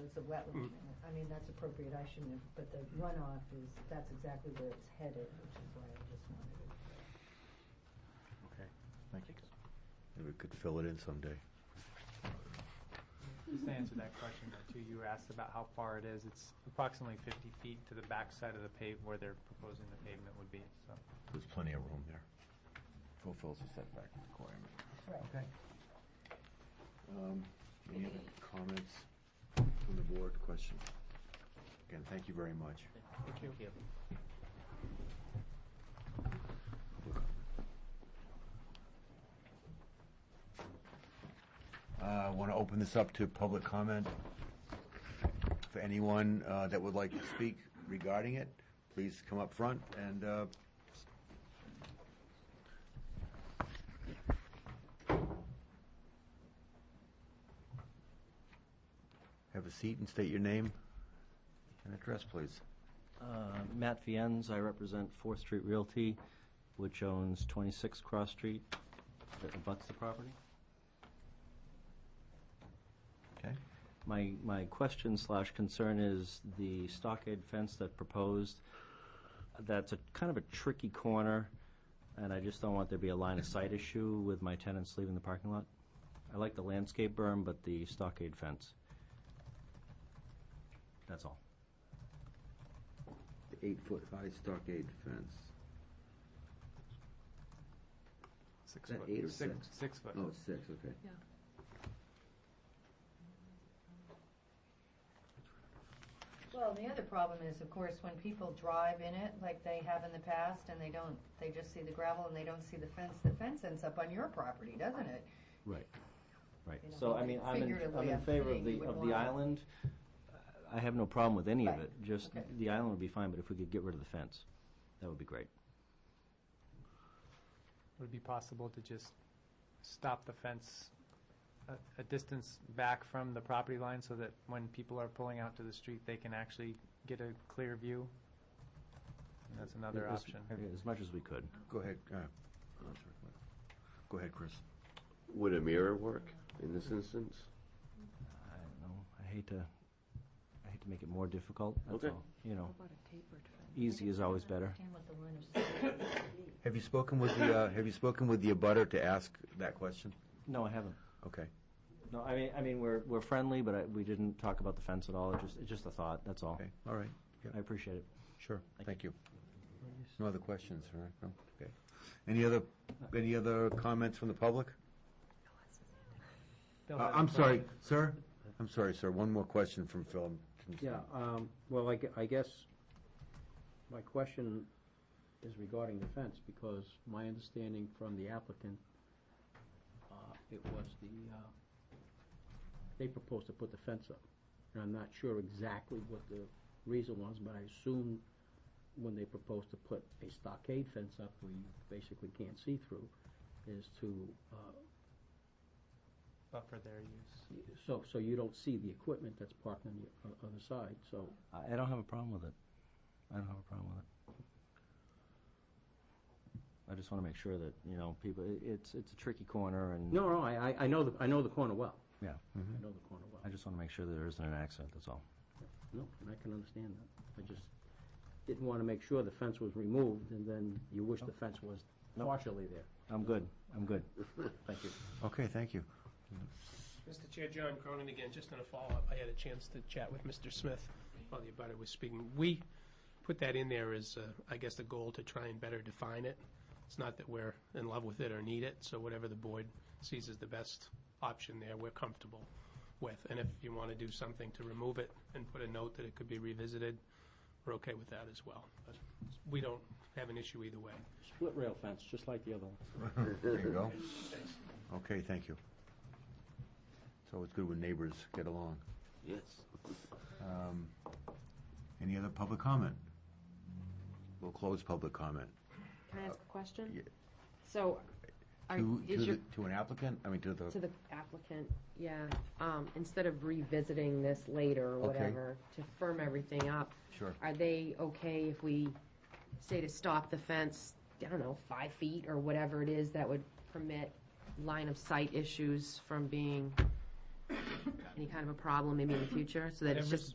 it's a wetland. Mm. I mean, that's appropriate, I shouldn't have, but the runoff is, that's exactly where it's headed, which is why I just wanted it. Okay. Thank you. Maybe we could fill it in someday. Just to answer that question though, too, you were asked about how far it is. It's approximately fifty feet to the back side of the pave where they're proposing the pavement would be, so. There's plenty of room there. fulfills the setback requirement. Right. Okay. Um, Any other comments from the board, questions? Again, thank you very much. Thank you. I want to Uh, open this up to public comment. For anyone uh, that would like to speak regarding it, please come up front and uh, have a seat and state your name and address, please. Uh, Matt Fiennes, I represent Fourth Street Realty, which owns 26 Cross Street, that abuts the property. Okay? My, my question slash concern is the stockade fence that proposed, that's a kind of a tricky corner, and I just don't want there to be a line of sight issue with my tenants leaving the parking lot. I like the landscape berm, but the stockade fence. That's all. The eight-foot-high stockade fence. Six Is that foot. eight or Six- Six foot. six, Oh. okay. Well, the other problem is, of course, when people drive in it, like they have in the past, and they don't, they just see the gravel and they don't see the fence, the fence ends up on your property, doesn't it? Right, right. You know, So, I mean, I'm in, figuratively, I'm in I'm favor saying of you the, would of want- the island. I have no problem with any of Right, it, just, okay. the island would be fine, but if we could get rid of the fence, that would be great. Would it be possible to just stop the fence a, a distance back from the property line so that when people are pulling out to the street, they can actually get a clear view? That's another As- option. As much as we could. Go ahead, uh, go ahead, Chris. Would a mirror work in this instance? I don't know, I hate to, I hate to make it more difficult, that's Okay. all, you know. How about a tapered fence? Easy is always better. Understand what the line of sight would be. Have you spoken with the, uh, have you spoken with the abutter to ask that question? No, I haven't. Okay. No, I mean, I mean, we're, we're friendly, but I, we didn't talk about the fence at all, it's just, it's just a thought, that's all. Okay, all right, I appreciate it. sure, Thank thank you. No other questions, all right? No? Okay. Any other, any other comments from the public? Bill Uh, had a I'm sorry, question. sir? I'm sorry, sir, one more question from Phil. Yeah, um, well, I, gue- I guess my question is regarding the fence, because my understanding from the applicant, uh, it was the, uh, they proposed to put the fence up. And I'm not sure exactly what the reason was, but I assume when they proposed to put a stockade fence up where you basically can't see through, is to, uh, Buffer their use. so, so you don't see the equipment that's parked on the o- other side, so I, I don't have a problem with it. I don't have a problem with it. I just want to make sure that, you know, people, it- it's, it's a tricky corner and. No, no, I, I- I know, the I know the corner well. Yeah. mm-hmm. I know the corner I well. just want to make sure that there isn't an accident, that's all. No, and I can understand that. I just didn't want to make sure the fence was removed, and then you wish the fence was No. partially there. I'm good, I'm good. Thank you. Okay, thank you. Mr. Chair, John Cronin again, just in a follow-up, I had a chance to chat with Mr. Smith while the abutter was speaking. We put that in there as, uh, I guess, the goal to try and better define it. It's not that we're in love with it or need it, so whatever the board sees as the best option there, we're comfortable with. And if you want to do something to remove it and put a note that it could be revisited, we're okay with that as well. But We don't have an issue either way. Split rail fence, just like the other one. There you go. Okay, thank you. So it's good when neighbors get along. Yes. Um, Any other public comment? We'll close public comment. Can I ask a Uh, yeah. question? So, are, To, to is your, the- to an applicant, I mean, to the, to the applicant, yeah, um, instead of revisiting this later or Okay. whatever, to firm everything up, sure. are they okay if we say to stop the fence, I don't know, five feet or whatever it is that would permit line of sight issues from being any kind of a problem maybe in the future, so that it's Whatever's- just